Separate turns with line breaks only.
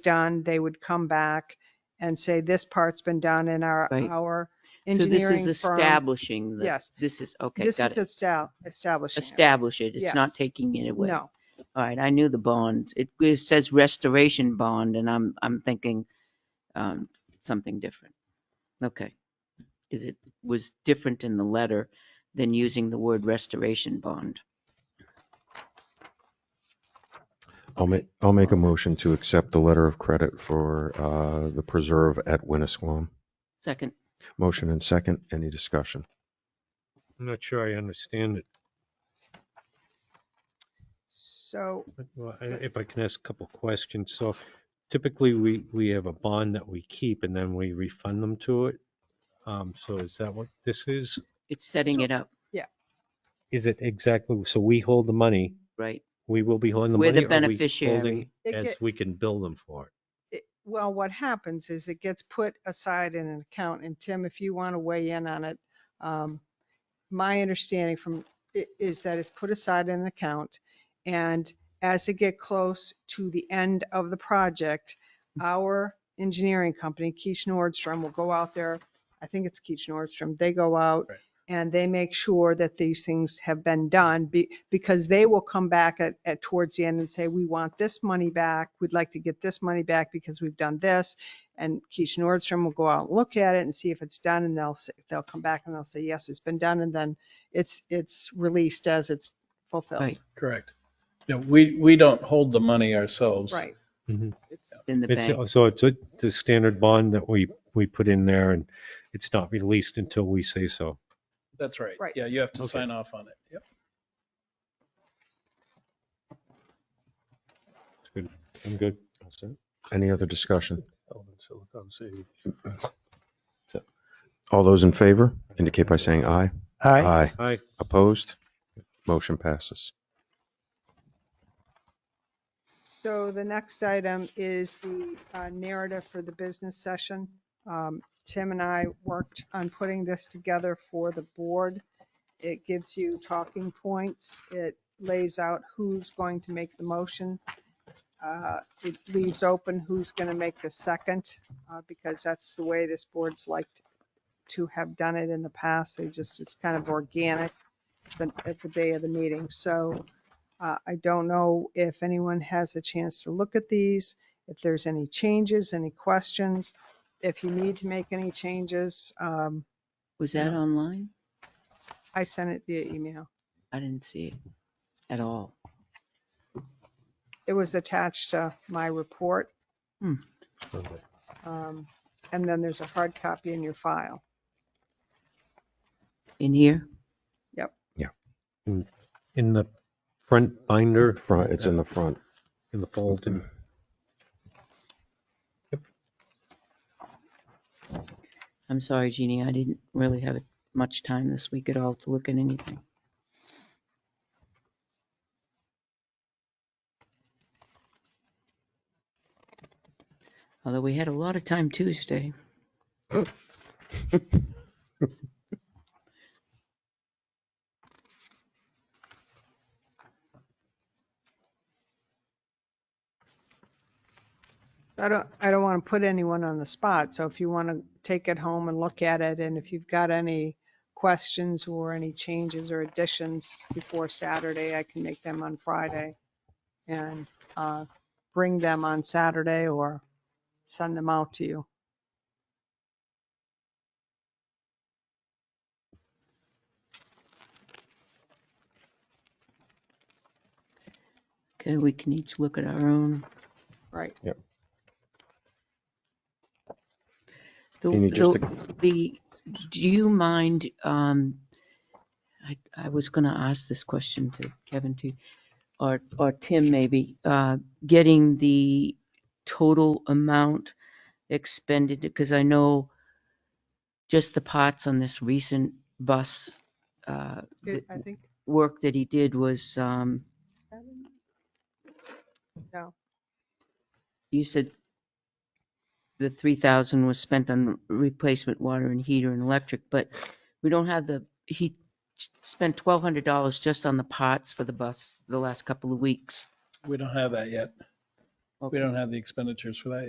done, they would come back and say, this part's been done in our,
Right.
our
So this is
engineering firm.
establishing the,
Yes.
this is, okay,
This
got
is
it.
estab- establishing. it.
Establish it.
Yes.
It's not
Mm-hmm.
taking it away. All
No,
right, I knew the bond. It it says restoration bond and I'm, I'm thinking um, something different. Okay. Because it was different in the letter than using the word restoration bond.
I'll make, I'll make a
Awesome.
motion to accept the letter of credit for uh, the preserve at Winnisquam.
Second,
Motion and second, any discussion?
I'm not sure I understand it.
so,
but, well, I- If I can ask a couple questions, so typically we, we have a bond that we keep and then we refund them to it. Um, so is that what this is?
it's setting it up,
Is it exactly, so we hold the money,
right?
we will be holding the money?
We're the
or we
beneficiary.
holding
It
As
get-
we can bill them for
it- well, what happens is it gets put aside in an account, and Tim, if you want to weigh in on it, um, my understanding from, i- is that it's put aside in an account, and as they get close to the end of the project, our engineering company, Keach Nordstrom, will go out there, I think it's Keach Nordstrom, they go out
Right.
and they make sure that these things have been done, be- because they will come back at, at, towards the end and say, we want this money back, we'd like to get this money back because we've done this. And Keach Nordstrom will go out and look at it and see if it's done, and they'll, say- they'll come back and they'll say, yes, it's been done, and then it's, it's released as it's fulfilled.
Right.
Correct. No, we, we don't hold the money ourselves.
Right.
it.
It's,
In the bank.
It's- So it's a- the standard bond that we, we put in there and it's not released until we say so.
That's right.
Right.
Yeah, you have to
Okay.
sign off on it. Yep.
It's good. I'm good.
Any other discussion?
Aye.
All those in favor indicate by saying aye. Aye.
Aye.
Opposed? Motion passes.
So the next item is the uh, narrative for the business session. Um, Tim and I worked on putting this together for the board. It gives you talking points. It lays out who's going to make the motion. Uh, It leaves open who's going to make the second, uh, because that's the way this board's liked to have done it in the past. They just, it's kind of organic the- at the day of the meeting. So uh, I don't know if anyone has a chance to look at these, if there's any changes, any questions, if you need to make any changes. um,
Was that online?
I sent it via email.
I didn't see it at all.
It was attached to my report.
Hmm.
Um, And then there's a hard copy in your file.
In here?
In the front binder.
Front, it's in the front.
in the fold. and-
I'm sorry, Jeannie, I didn't really have much time this week at all to look at anything. Although we had a lot of time Tuesday.
I don't, I don't want to put anyone on the spot, so if you want to take it home and look at it, and if you've got any questions or any changes or additions before Saturday, I can make them on Friday and uh, bring them on Saturday or send them out to you.
Okay, we can each look at our own.
Right.
The-
Jeannie, just
the-
to-
The, do you mind, um, I, I was gonna ask this question to Kevin too, or, or Tim maybe, uh, getting the total amount expended, because I know just the parts on this recent bus, uh,
It-
th-
I think,
work that he did was, um,
no,
you said the three thousand was spent on replacement water and heater and electric, but we don't have the, he spent twelve hundred dollars just on the pots for the bus the last couple of weeks.
We don't have that yet. We don't have the expenditures for that yet.